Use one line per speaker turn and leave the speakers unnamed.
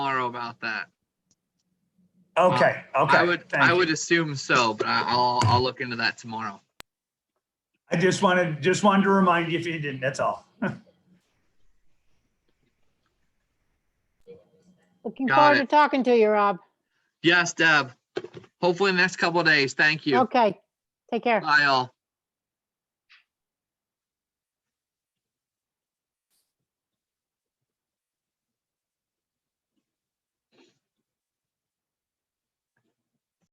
about that.
Okay, okay.
I would,
thank
I
you.
would assume so, but I- I'll, I'll look into that tomorrow.
I just wanted, just wanted to remind you if you didn't, that's all.
Looking
Got
forward
it.
to talking to you, Rob.
Yes, Deb. Hopefully in the next couple of days. Thank you.
Okay, take care.
Bye all.